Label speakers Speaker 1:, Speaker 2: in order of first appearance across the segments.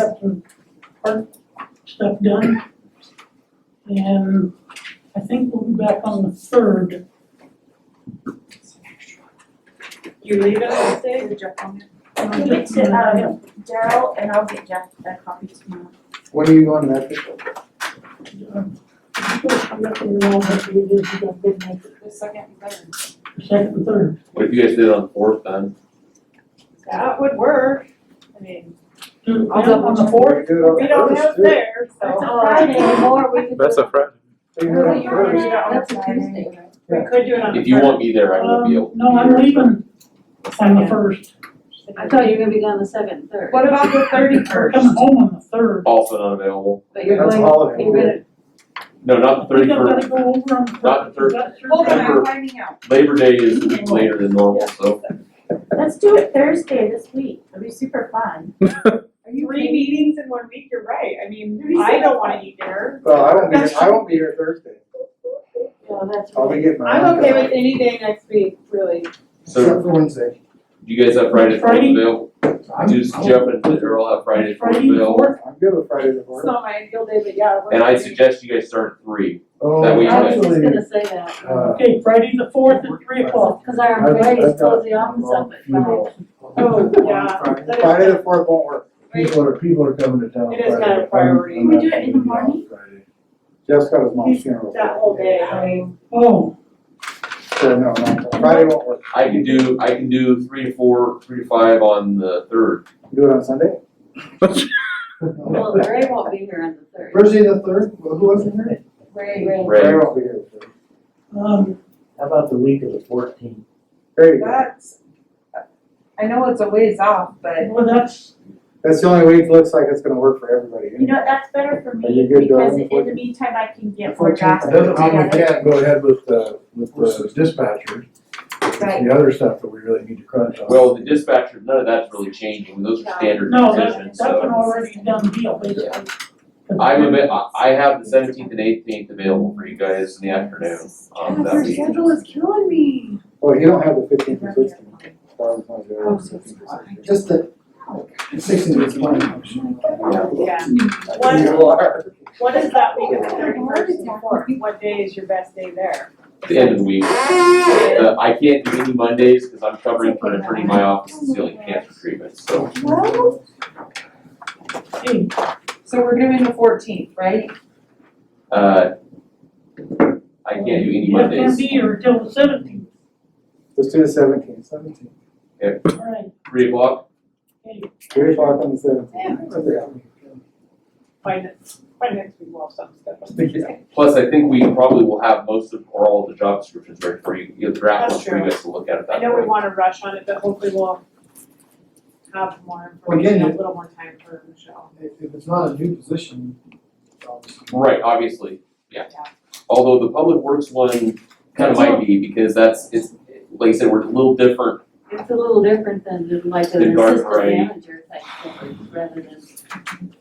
Speaker 1: after park stuff done. And I think we'll be back on the third.
Speaker 2: You leave it all day?
Speaker 3: Jeff on it?
Speaker 1: um,
Speaker 3: Give it to, um, Daryl and I'll get Jeff that copy tomorrow.
Speaker 4: When are you going to Mexico?
Speaker 1: um, I'm not gonna know what it is, you gotta go back to
Speaker 3: The second and third.
Speaker 1: the Second and third,
Speaker 5: What if you guys did it on the fourth then?
Speaker 2: That would work. I mean,
Speaker 1: Two,
Speaker 2: I'll go on the fourth.
Speaker 4: You do it on
Speaker 2: We
Speaker 4: the
Speaker 2: don't
Speaker 4: first,
Speaker 2: have
Speaker 4: too.
Speaker 2: there,
Speaker 3: That's a
Speaker 2: so
Speaker 3: Friday, or we could do it.
Speaker 6: That's a Friday.
Speaker 4: You do it on the first.
Speaker 3: That's a Tuesday, right?
Speaker 2: we could do it on the
Speaker 5: If you
Speaker 2: first.
Speaker 5: want me there, I will be able.
Speaker 1: Um, no, I'm leaving on the first,
Speaker 7: I thought you were gonna be gone the second, third,
Speaker 2: What about the thirty
Speaker 1: we're
Speaker 2: first?
Speaker 1: coming home on the third.
Speaker 5: Also unavailable.
Speaker 7: but you're
Speaker 4: That's
Speaker 7: going,
Speaker 4: all of
Speaker 7: you're
Speaker 4: it.
Speaker 7: gonna,
Speaker 5: No, not the
Speaker 1: We
Speaker 5: thirty
Speaker 1: gotta
Speaker 5: first.
Speaker 1: go over on the third.
Speaker 5: Not the
Speaker 1: Is that your-
Speaker 2: Hold on, I'm
Speaker 5: Remember-
Speaker 2: finding out.
Speaker 5: Labor Day is a week later than normal, so
Speaker 3: Let's do it Thursday this week, it'll be super fun. Are you
Speaker 2: Three
Speaker 3: kidding?
Speaker 2: meetings in one week, you're right. I mean,
Speaker 3: Three
Speaker 2: I don't
Speaker 3: seconds.
Speaker 2: wanna eat dinner.
Speaker 4: Well, I won't be, I won't be here Thursday.
Speaker 7: no, that's
Speaker 4: I'll be
Speaker 7: right.
Speaker 4: getting my.
Speaker 2: I'm okay with
Speaker 4: it.
Speaker 2: any day next week, really.
Speaker 4: Except
Speaker 5: so
Speaker 4: for Wednesday.
Speaker 5: do you guys have Friday the fourth
Speaker 1: Friday?
Speaker 5: available?
Speaker 4: I'm-
Speaker 5: Just Jeff and Earl have Friday the fourth
Speaker 1: Friday the
Speaker 5: available.
Speaker 4: I'm good with Friday the
Speaker 2: It's
Speaker 4: fourth.
Speaker 2: not my ideal day, but yeah. it works
Speaker 5: And
Speaker 2: for
Speaker 5: I
Speaker 2: me.
Speaker 5: suggest you guys start at three. That
Speaker 4: Oh,
Speaker 5: we-
Speaker 7: I was just
Speaker 4: actually,
Speaker 7: gonna say that,
Speaker 4: uh,
Speaker 1: Okay, Friday the fourth at three o'clock.
Speaker 7: cause our
Speaker 4: I've- I've
Speaker 7: employees
Speaker 4: got
Speaker 7: close the office up at
Speaker 4: funeral.
Speaker 7: five.
Speaker 2: Oh, yeah. That is-
Speaker 4: Friday the fourth won't work.
Speaker 2: Wait,
Speaker 8: People are, people are coming to town.
Speaker 2: It is kind
Speaker 8: Friday.
Speaker 2: of priority.
Speaker 8: I'm- I'm
Speaker 3: Can we do
Speaker 8: not
Speaker 3: it in the
Speaker 8: gonna be on
Speaker 3: morning?
Speaker 8: Friday.
Speaker 4: Jeff's got his mom's
Speaker 2: He's-
Speaker 4: funeral.
Speaker 2: That whole day, I mean,
Speaker 1: Oh,
Speaker 4: So no, no, Friday won't work.
Speaker 5: I can do, I can do three to four, three to five on the third.
Speaker 4: Do it on Sunday?
Speaker 7: Well, Ray won't be here on the third,
Speaker 4: Thursday the third, who wasn't here?
Speaker 7: Ray, Ray,
Speaker 5: Right.
Speaker 4: Ray won't be here. the third.
Speaker 1: um,
Speaker 8: How about the week of the fourteenth?
Speaker 4: There you go.
Speaker 2: that's, I know it's a ways off, but
Speaker 1: well, that's,
Speaker 4: That's the only week it looks like it's gonna work for everybody.
Speaker 3: You know, that's better for
Speaker 4: Are you
Speaker 3: me,
Speaker 4: good,
Speaker 3: because
Speaker 4: darling?
Speaker 3: in the meantime, I can get more
Speaker 4: Fourteenth.
Speaker 3: drafts.
Speaker 8: It doesn't mean we
Speaker 3: together.
Speaker 8: can't go ahead with, uh, with the dispatchers,
Speaker 3: Right,
Speaker 8: the other stuff that we really need to crunch on.
Speaker 5: Well, the dispatcher, none of that's really changing. Those are standard
Speaker 1: no, that,
Speaker 5: decisions,
Speaker 1: that's an
Speaker 5: so.
Speaker 1: already done deal, basically.
Speaker 5: I'm a bit, I, I have the seventeenth and eighteenth available for you guys in the afternoon. Um, that week.
Speaker 2: is killing me.
Speaker 4: Well, you don't have the Oh, fifteenth and sixteenth. Just the, sixteenth is one.
Speaker 2: Yeah.
Speaker 4: You are.
Speaker 2: What is that week of the
Speaker 3: Oh,
Speaker 2: thirty first and
Speaker 3: yeah.
Speaker 2: fourth? What day is your best day there?
Speaker 5: the end of the week. Uh, I can't do any Mondays because I'm covering for an attorney in my office that's dealing with cancer treatment, so.
Speaker 3: well,
Speaker 1: Hey,
Speaker 2: So we're doing the fourteenth, right?
Speaker 5: Uh, I can't do any
Speaker 1: you can't
Speaker 5: Mondays.
Speaker 1: be here till the seventeenth,
Speaker 4: Let's do the seventeenth. Seventeenth.
Speaker 1: all right,
Speaker 5: Three o'clock,
Speaker 1: hey,
Speaker 4: Three o'clock on the
Speaker 2: By next, by next week, we'll have some stuff.
Speaker 4: seventeenth.
Speaker 5: plus I think we probably will have most of, or all of the job descriptions ready for you, you'll draft one for you guys to look at at
Speaker 2: I
Speaker 5: that
Speaker 2: know we
Speaker 5: point.
Speaker 2: wanna rush on it, but hopefully we'll have more information, a little more time for Michelle.
Speaker 4: If it's not a new position, obviously.
Speaker 5: Right, obviously, yeah.
Speaker 2: Yeah.
Speaker 5: Although the public works one kind of might be because that's, it's, like I said, we're a little different.
Speaker 7: it's a little different than the- like
Speaker 5: The
Speaker 7: an
Speaker 5: garden
Speaker 7: assistant
Speaker 5: variety.
Speaker 7: manager type thing, rather than.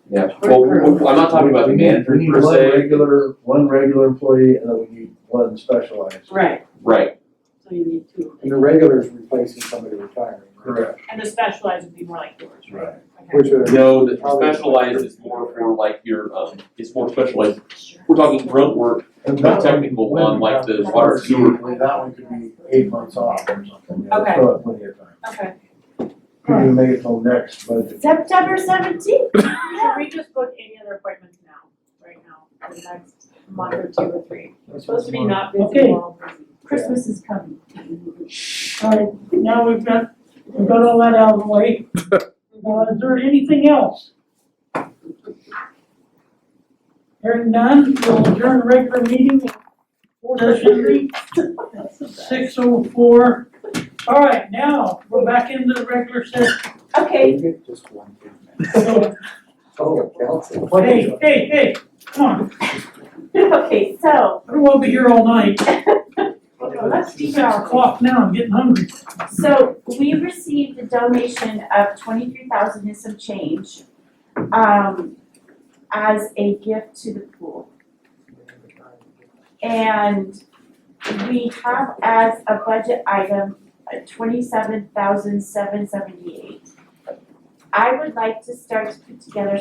Speaker 5: Yeah, well, we- I'm not talking about the
Speaker 8: We need-
Speaker 5: manager per
Speaker 8: We need one
Speaker 5: se.
Speaker 8: regular, one regular employee, and then we need one specialized.
Speaker 2: Right,
Speaker 5: Right,
Speaker 7: So you need two of
Speaker 4: And the
Speaker 7: them.
Speaker 4: regular's replacing somebody retiring.
Speaker 8: Correct.
Speaker 2: and the specialized would be more like yours, right?
Speaker 8: Right.
Speaker 4: Which are.
Speaker 5: no, the specialized is more for like your, um, it's more specialized We're talking grunt work,
Speaker 8: And
Speaker 5: Not
Speaker 8: that one-
Speaker 5: technical on, like, the
Speaker 8: when-
Speaker 5: water sewer.
Speaker 8: That one could be eight months off or something. you know,
Speaker 2: Okay.
Speaker 8: Still have plenty of time.
Speaker 2: Okay.
Speaker 8: We can make it till next budget.
Speaker 3: September seventeenth,
Speaker 2: Should we just book any other appointments now, right now, for the next month or two or three? We're supposed to be not busy,
Speaker 1: Okay.
Speaker 2: we're all busy.
Speaker 3: Christmas is coming.
Speaker 1: all right, now we've got, we've got all that out of the way. Uh, is there anything else? Hearing none, we'll adjourn the regular meeting, session six oh four. All right, now, we're back into the regular session,
Speaker 3: Okay,
Speaker 4: You get just one.
Speaker 1: so,
Speaker 4: Oh, council.
Speaker 1: hey, hey, hey, come on,
Speaker 3: okay, so,
Speaker 1: I don't wanna be here all night,
Speaker 3: let's be
Speaker 1: six o'clock now, I'm getting hungry.
Speaker 3: So we received a donation of twenty-three thousand and some change, um, as a gift to the pool. And we have as a budget item, twenty-seven thousand seven seventy-eight. I would like to start to put together